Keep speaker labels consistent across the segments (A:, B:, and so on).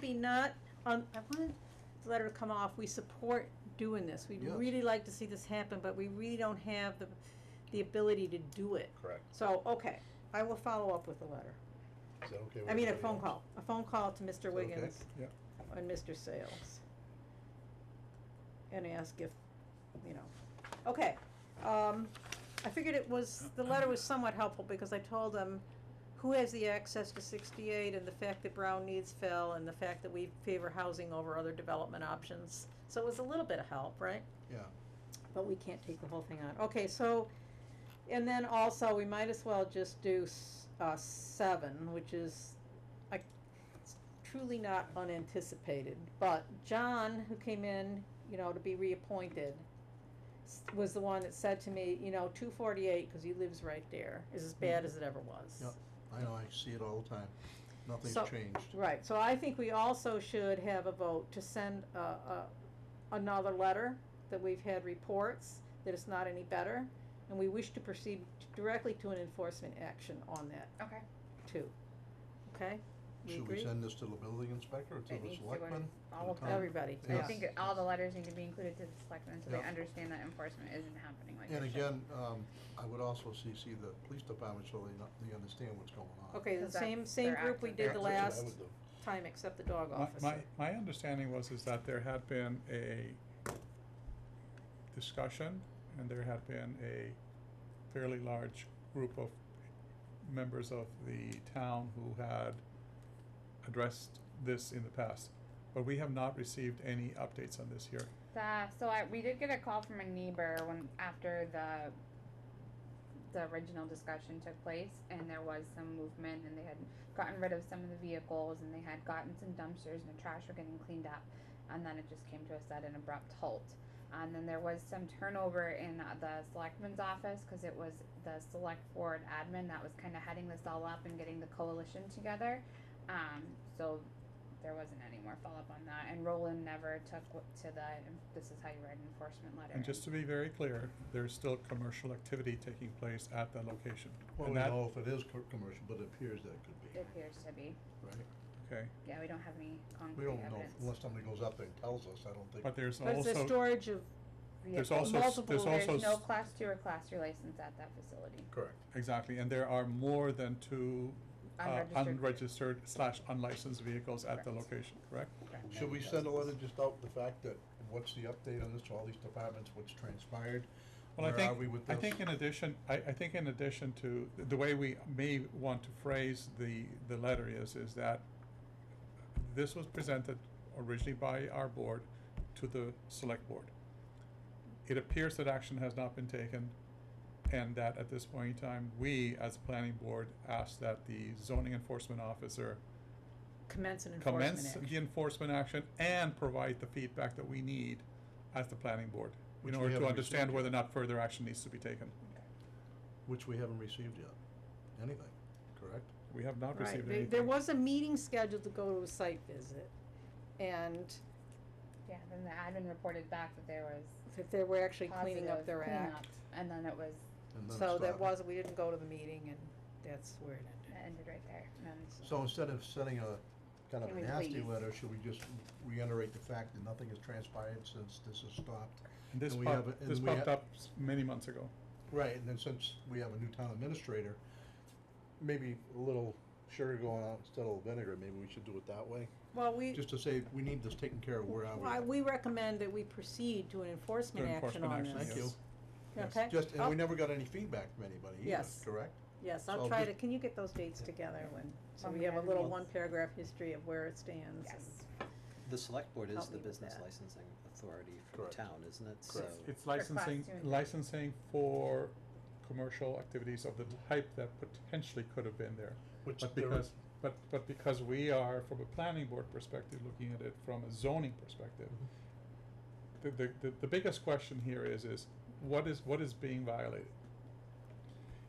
A: be not, on, I wanted the letter to come off, we support doing this. We'd
B: Yes.
A: really like to see this happen, but we really don't have the, the ability to do it.
C: Correct.
A: So, okay, I will follow up with a letter.
B: Is that okay with
A: I mean, a
B: everybody
A: phone
B: else?
A: call, a phone call to
B: Is
A: Mr.
B: that okay?
A: Wiggins
B: Yeah,
A: and Mr. Sales. And ask if, you know, okay, um, I figured it was, the letter was somewhat helpful because I told them who has the access to sixty-eight and the fact that Brown needs fill and the fact that we favor housing over other development options. So it was a little bit of help, right?
B: yeah.
A: But we can't take the whole thing on. Okay, so, and then also, we might as well just do, s- uh, seven, which is, I, it's truly not unanticipated. But John, who came in, you know, to be reappointed, s- was the one that said to me, you know, two forty-eight, cause he lives right there, is as bad as it ever was.
B: Yep. I know, I see it all the time. Nothing's
A: So-
B: changed.
A: Right, so I think we also should have a vote to send a, a, another letter that we've had reports that it's not any better. And we wish to proceed directly to an enforcement action on that
D: Okay.
A: too. Okay? We
B: Should we
A: agree?
B: send this to the building inspector or
D: It
B: to the
D: needs to go
B: selectmen?
D: to all
B: the
D: of
B: town?
A: Everybody,
D: I
A: yes.
D: think all the letters need to be included to the selectmen so they
B: Yeah.
D: understand that enforcement isn't happening like
B: And
D: it should.
B: again, um, I would also CC the police department so they, not- they understand what's going on.
A: Okay, the
D: Because that's
A: same, same
D: their
A: group we
D: active-
A: did the
B: That's what I
A: last
B: would do.
A: time, except the dog
E: My-
A: officer.
E: My, my understanding was is that there had been a discussion and there had been a fairly large group of members of the town who had addressed this in the past. But we have not received any updates on this here.
D: Uh, so I, we did get a call from a neighbor when, after the, the original discussion took place and there was some movement and they had gotten rid of some of the vehicles and they had gotten some dumpsters and the trash were getting cleaned up. And then it just came to us at an abrupt halt. And then there was some turnover in uh, the selectman's office because it was the select board admin that was kind of heading this all up and getting the coalition together. Um, so there wasn't any more follow-up on that, and Roland never took w- to the, this is how you write an enforcement letter.
E: And just to be very clear, there's still commercial activity taking place at that location.
B: Well, we
E: And that-
B: know if it is co- commercial, but it appears that it could
D: It
B: be,
D: appears to be,
B: right?
E: Okay,
D: yeah, we don't have any
B: We
D: concrete
B: don't know,
D: evidence.
B: unless somebody goes up there and tells us, I don't think.
E: but there's
A: But it's the
E: also,
A: storage of,
E: there's
D: Vehicle-
E: also, s-
A: multiple-
E: there's also.
D: There's no
E: s-
D: class two or class three license at that facility,
B: Correct.
E: Exactly, and there are more than two uh,
D: unregistered.
E: unregistered slash unlicensed vehicles at the
D: Correct.
E: location, correct?
D: Correct.
B: Should we send a letter just out the fact that, what's the update on this, all these departments, what's transpired?
E: Well, I
B: Where are
E: think,
B: we with
E: I
B: this?
E: think in addition, I, I think in addition to, the way we may want to phrase the, the letter is, is that this was presented originally by our board to the select board. It appears that action has not been taken, and that at this point in time, we, as planning board, ask that the zoning enforcement officer
A: commence and enforcement
E: commence
A: action.
E: the enforcement action and provide the feedback that we need as the planning board
B: Which
E: in
B: we
E: order to
B: haven't
E: understand
B: received
E: whether or not further action needs to be taken.
B: Which we haven't received yet, anything, correct?
E: We have not
A: Right,
E: received
A: there,
E: anything.
A: there was a meeting scheduled to go to a site visit, and
D: Yeah, then the admin reported back that there was
A: that they were actually cleaning
D: positive
A: up their act.
D: cleanup, and then it was,
B: And then it
A: So that
B: stopped.
A: was, we didn't go to the meeting and that's where it
D: it
A: ended.
D: ended right there, and then it's-
B: So instead of sending a kind of
D: Can
B: a
D: we
B: nasty
D: please?
B: letter, should we just reiterate the fact that nothing has transpired since this has stopped?
E: And This
B: and we
E: pop-
B: have a- and
E: this
B: we ha-
E: popped up s- many months ago.
B: Right, and then since we have a new town administrator, maybe a little sugar going out instead of vinegar, maybe we should do it that way?
A: Well, we,
B: Just to say, we need this taken care of, where are we?
A: I- we recommend that we proceed to an enforcement
E: To
A: action
E: enforcement
A: on
E: action,
A: this.
B: Thank you.
E: yes.
A: Okay?
B: Just, and
A: I'll-
B: we never got any feedback from anybody either,
A: Yes.
B: correct?
A: Yes,
B: so
A: I'll
B: I'll
A: try to,
B: just-
A: can you get those dates together when, so
D: When
A: we
D: we
A: have a
D: have a
A: little
D: meeting.
A: one paragraph history of where it stands?
D: yes.
A: and-
C: The select board is
A: Help me
C: the
A: with
C: business
A: that.
C: licensing authority for the
B: Correct.
C: town, isn't it? So
B: Correct.
E: It's
D: class
E: licensing,
D: two and three.
E: licensing for commercial activities of the type that potentially could have been there.
B: Which
E: But
B: there-
E: because, but, but because we are, from a planning board perspective, looking at it from a zoning perspective, the, the, the, the biggest question here is, is what is, what is being violated?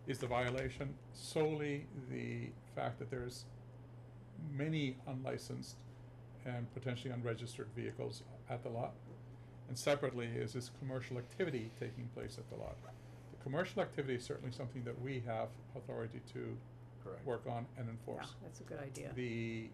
E: Is the violation solely the fact that there's many unlicensed and potentially unregistered vehicles at the lot? And separately, is this commercial activity taking place at the lot? The commercial activity is certainly something that we have authority to
B: Correct.
E: work on and
A: Yeah,
E: enforce.
A: that's a good idea.
E: The